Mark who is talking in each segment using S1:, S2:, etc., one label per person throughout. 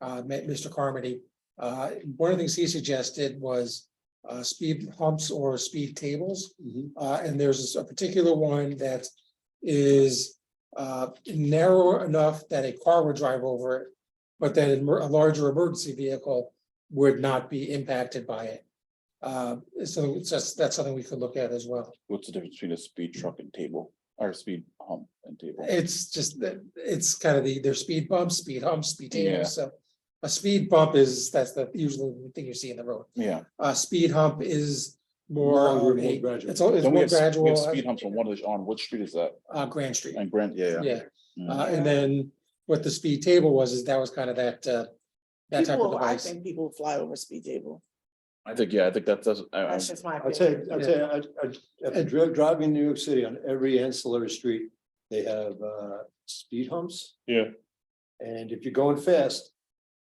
S1: uh, met Mr. Carmody. Uh, one of the things he suggested was, uh, speed humps or speed tables. Uh, and there's a particular one that is, uh, narrow enough that a car would drive over it. But then a mer- a larger emergency vehicle would not be impacted by it. Uh, so it's just, that's something we could look at as well.
S2: What's the difference between a speed truck and table, or a speed hump and table?
S1: It's just that, it's kind of the, their speed bumps, speed humps, speed
S2: Yeah.
S1: tables, so. A speed bump is, that's the usually the thing you see in the road.
S2: Yeah.
S1: A Uh, speed hump is more.
S3: Longer,
S1: of
S3: more
S1: a-
S3: gradual.
S1: It's, al- it's
S2: Don't we
S1: more
S2: have s- we have
S1: gradual,
S2: Speed humps on one of the, on which street is that?
S1: uh, Grand Street,
S2: And Grant, yeah, yeah.
S1: yeah.
S2: Mm.
S1: Uh, and then what the speed table was, is that was kind of that, uh, that type of
S4: People, I
S1: device.
S4: think people fly over speed table.
S2: I think, yeah, I think that's, that's, I- I-
S4: That's just my
S3: I'd say,
S4: opinion.
S3: I'd say, I, I, after dri- driving in New York City on every ancillary street, they have, uh, speed humps.
S5: Yeah.
S3: And if you're going fast,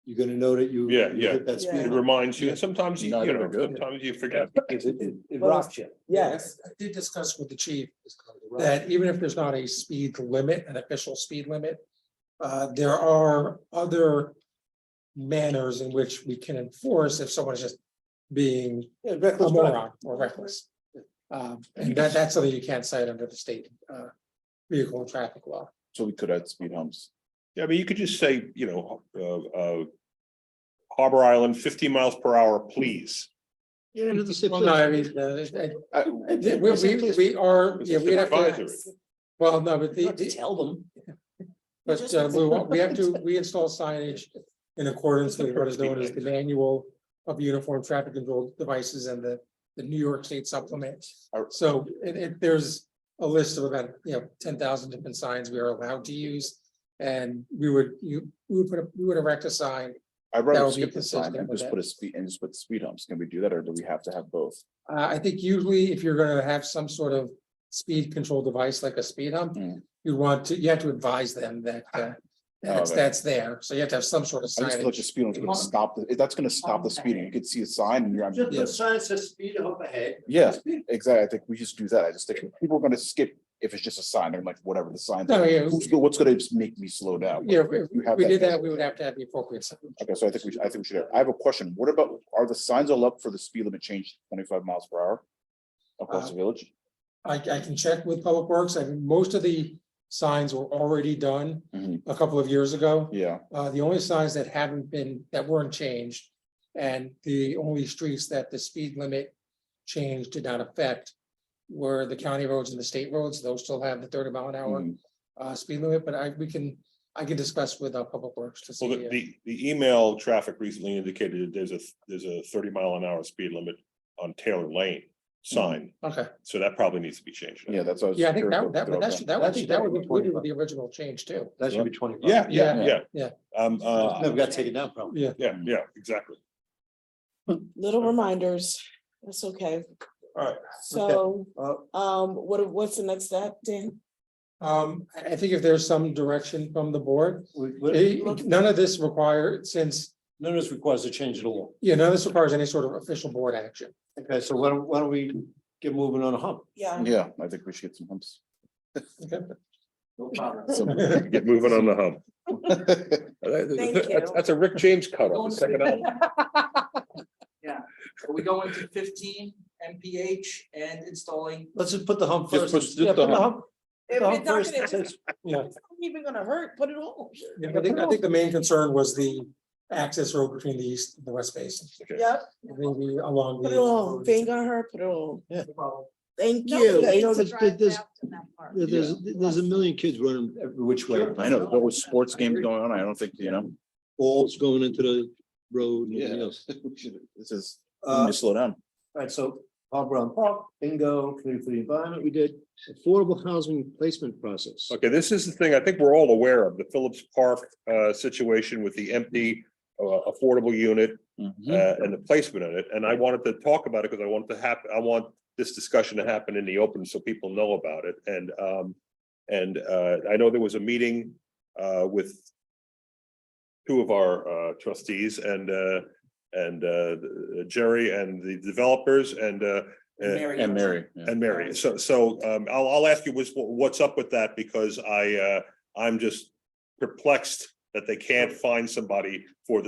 S3: you're gonna know that you.
S5: Yeah,
S3: you
S5: yeah.
S3: hit That
S4: Yeah.
S3: speed
S5: It
S3: hump,
S5: reminds you, and sometimes you,
S2: No,
S5: you
S2: they're
S5: know,
S2: good.
S5: sometimes you forget.
S3: because it, it, it
S4: Well,
S3: rocks you.
S4: Yes,
S1: I did discuss with the chief
S3: It's called the rock.
S1: that even if there's not a speed limit, an official speed limit, uh, there are other manners in which we can enforce if someone is just being
S3: Yeah,
S1: a
S3: reckless driving.
S1: moron or reckless. Um, and that, that's something you can't cite under the state, uh, vehicle and traffic law.
S2: so we could add speed humps.
S5: Yeah, I mean, you could just say, you know, uh, uh. Harbor Island, fifteen miles per hour, please.
S3: Yeah, and it's a-
S1: Well, no, I mean, uh, I-
S2: I-
S1: I- we, we, we are,
S5: It's
S1: yeah,
S5: just
S1: we have to,
S5: advisory.
S1: well, no, but the.
S4: you have to tell them.
S1: But
S4: Just
S1: uh, Lou,
S4: install
S1: we have to, we install signage in accordance with what is known as the manual of uniform traffic control devices and the, the New York State supplement.
S2: Are-
S1: So it, it, there's a list of about, you know, ten thousand different signs we are allowed to use. And we would, you, we would put, a- we would erect a sign.
S2: I'd
S1: That
S2: rather
S1: would be
S2: skip the sign
S1: consistent
S2: and
S1: with
S2: just
S1: that.
S2: put a speed, and just put speed humps. Can we do that, or do we have to have both?
S1: Uh, I think usually if you're gonna have some sort of speed control device like a speed hump,
S2: Mm.
S1: you want to, you have to advise them that, uh, that's,
S2: okay.
S1: that's there. So you have to have some sort of
S2: I just feel like
S1: signage.
S2: the speed hump's gonna
S1: Hump.
S2: stop, the- eh, that's gonna stop the speeding. You could see a sign and you're,
S3: Just
S1: Yeah.
S3: the sign says speed hump ahead.
S2: yeah, exactly. I think we just do that. I just think people are gonna skip if it's just a sign. They're like, whatever the sign.
S1: No, yeah.
S2: Who's, go- what's gonna just make me slow down?
S1: Yeah, if- if
S2: You have
S1: we
S2: that
S1: did
S2: there.
S1: that, we would have to have the appropriate. sign.
S2: Okay, so I think we, should- I think we should, have- I have a question. What about, are the signs all up for the speed limit change to twenty-five miles per hour? Across the
S1: Uh-huh.
S2: village?
S1: I, I can check with Public Works. I mean, most of the signs were already done
S2: Mhm.
S1: a couple of years ago.
S2: Yeah,
S1: Uh, the only signs that haven't been, that weren't changed and the only streets that the speed limit change did not affect were the county roads and the state roads. Those still have the thirty mile an hour
S2: Mhm.
S1: uh, speed limit, but I, we can, I can discuss with uh, Public Works to
S5: Well, the,
S1: see. uh,
S5: the, the email traffic recently indicated that there's a, there's a thirty mile an hour speed limit on Taylor Lane sign.
S1: uh, Okay,
S5: So that probably needs to be changed.
S2: yeah, that's. what I was
S1: yeah, I think
S2: curious
S1: that,
S2: about.
S1: that, would- that should, that would,
S3: That's-
S1: that would be
S3: that
S1: included
S3: would
S1: with
S3: be-
S1: the original change too.
S3: That should be twenty-five.
S5: Yeah,
S1: Yeah.
S5: yeah, yeah. Um,
S3: Never
S5: uh,
S3: got taken down probably.
S1: Yeah.
S5: yeah, yeah, exactly.
S4: Little reminders. That's okay.
S5: All right.
S4: So,
S3: Uh,
S4: um, what, what's the next step, Dan?
S1: Um, I I think if there's some direction from the board,
S3: we- we-
S1: eh, none of this required, since,
S3: none of this requires a change in the law.
S1: you know, none of this requires any sort of official board action.
S3: Okay, so why don't, why don't we get moving on a hump?
S4: Yeah.
S2: Yeah, I think we should get some humps. Some-
S5: Get moving on the hump.
S4: Thank
S5: That's
S4: you.
S5: that's a Rick James cut off.
S6: Are we going to fifteen MPH and installing?
S3: Let's just put the hump
S2: Just
S3: first.
S2: put- just
S3: Yeah,
S2: the
S3: put
S2: hump.
S3: put
S4: If
S3: the
S4: it's
S3: hump
S4: not
S3: first.
S4: gonna-
S3: It says-
S1: Yeah,
S4: It's not even gonna hurt, put it on.
S1: I think, I think the main concern was the access road between the east and the west basin.
S4: Yep,
S1: Maybe along.
S4: put
S1: the
S4: it on, if it ain't gonna hurt, put it on. Thank
S7: No,
S4: you.
S7: because
S3: you know,
S7: it's
S3: there's-
S7: drive
S3: there's-
S7: out to that park.
S3: There- There's, there's a million kids running every which way.
S2: I know, there's always sports games going on. I don't think, you know.
S3: Balls going into the road and everything
S2: Yeah.
S3: else.
S2: we should- This is, we need
S3: Uh,
S2: to slow down.
S3: Alright, so Bob Brown Park, bingo, committee for the environment, we did affordable housing placement process.
S5: Okay, this is the thing I think we're all aware of, the Phillips Park uh situation with the empty uh affordable unit uh
S2: Mhm.
S5: and the placement in it. And I wanted to talk about it because I want to happen, I want this discussion to happen in the open so people know about it. And um and uh I know there was a meeting uh with two of our uh trustees and uh and uh Jerry and the developers and uh uh,
S2: And Mary. yeah.
S5: and Mary, so, so, um, I'll, I'll ask you what's, what's up with that, because I, uh, I'm just perplexed that they can't find somebody for this.